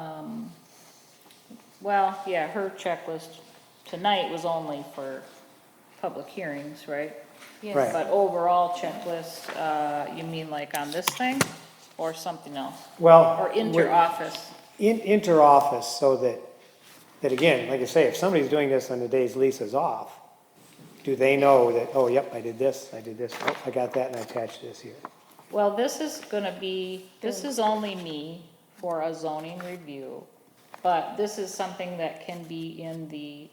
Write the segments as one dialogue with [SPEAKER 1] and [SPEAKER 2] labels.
[SPEAKER 1] Um, well, yeah, her checklist tonight was only for public hearings, right?
[SPEAKER 2] Right.
[SPEAKER 1] But overall checklist, uh, you mean like on this thing or something else?
[SPEAKER 2] Well.
[SPEAKER 1] Or
[SPEAKER 2] we're-
[SPEAKER 1] inter-office?
[SPEAKER 2] in, inter-office, so that, that again, like I say, if somebody's doing this on the days Lisa's off, do they know that, oh, yep, I did this, I did this, oh, I got that, and I attached this here.
[SPEAKER 1] Well, this is gonna be, this is only me for a zoning review, but this is something that can be in the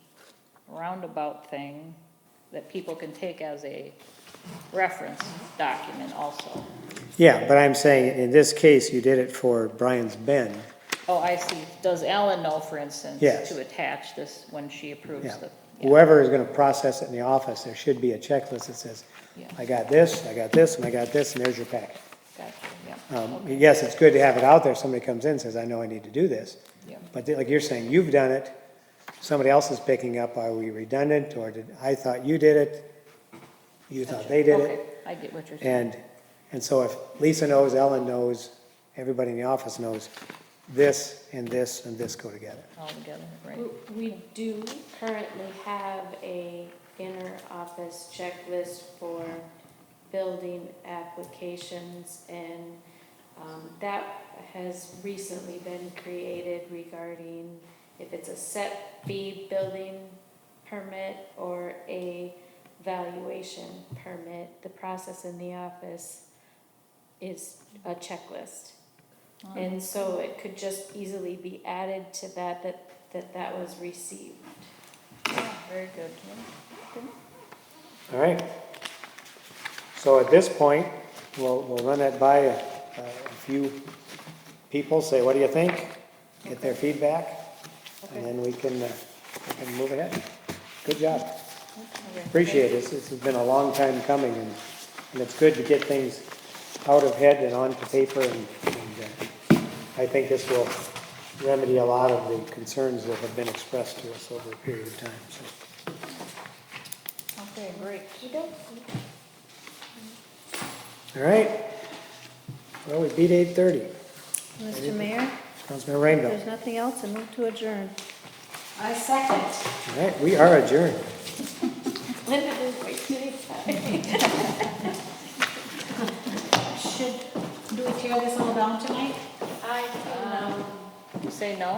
[SPEAKER 1] roundabout thing that people can take as a reference document also.
[SPEAKER 2] Yeah, but I'm saying, in this case, you did it for Brian's Bend,
[SPEAKER 1] Oh, I see. Does Ellen know, for instance,
[SPEAKER 2] Yes.
[SPEAKER 1] to attach this when she approves
[SPEAKER 2] yeah.
[SPEAKER 1] the? yeah.
[SPEAKER 2] Whoever is gonna process it in the office, there should be a checklist that says,
[SPEAKER 1] Yeah.
[SPEAKER 2] I got this, I got this, and I got this, and there's your packet.
[SPEAKER 1] Gotcha, yeah,
[SPEAKER 2] Um, yes, it's good to have it out there, somebody comes in, and says, I know I need to do this.
[SPEAKER 1] yeah.
[SPEAKER 2] But they- like you're saying, you've done it, somebody else is picking up, are we redundant, or did, I thought you did it, you thought uh, they did
[SPEAKER 1] Okay,
[SPEAKER 2] it,
[SPEAKER 1] I get what you're saying.
[SPEAKER 2] and, and so if Lisa knows, Ellen knows, everybody in the office knows, this and this and this go together.
[SPEAKER 1] All together, right?
[SPEAKER 3] W- We do currently have a inner office checklist for building applications and um, that has recently been created regarding if it's a set fee building permit or a valuation permit, the process in the office is a checklist. And so it could just easily be added to that, that, that that was received.
[SPEAKER 1] Very good.
[SPEAKER 2] All right? So at this point, we'll, we'll run that by a, a few people, say, what do you think? Get their feedback, and then we can, uh, we can move ahead. Good job. Appreciate it. This has been a long time coming, and, and it's good to get things out of head and onto paper, and, and uh, I think this will remedy a lot of the concerns that have been expressed to us over a period of time, so.
[SPEAKER 1] Okay, great.
[SPEAKER 2] All right. Well, we beat eight thirty.
[SPEAKER 4] Mr. Mayor,
[SPEAKER 2] Councilmember Rainville.
[SPEAKER 4] there's nothing else, I move to adjourn.
[SPEAKER 3] I second.
[SPEAKER 2] All right, we are adjourned.
[SPEAKER 3] Linda didn't wait anytime.
[SPEAKER 5] Should, do we tear this all down tonight?
[SPEAKER 3] I, um.
[SPEAKER 1] You say no?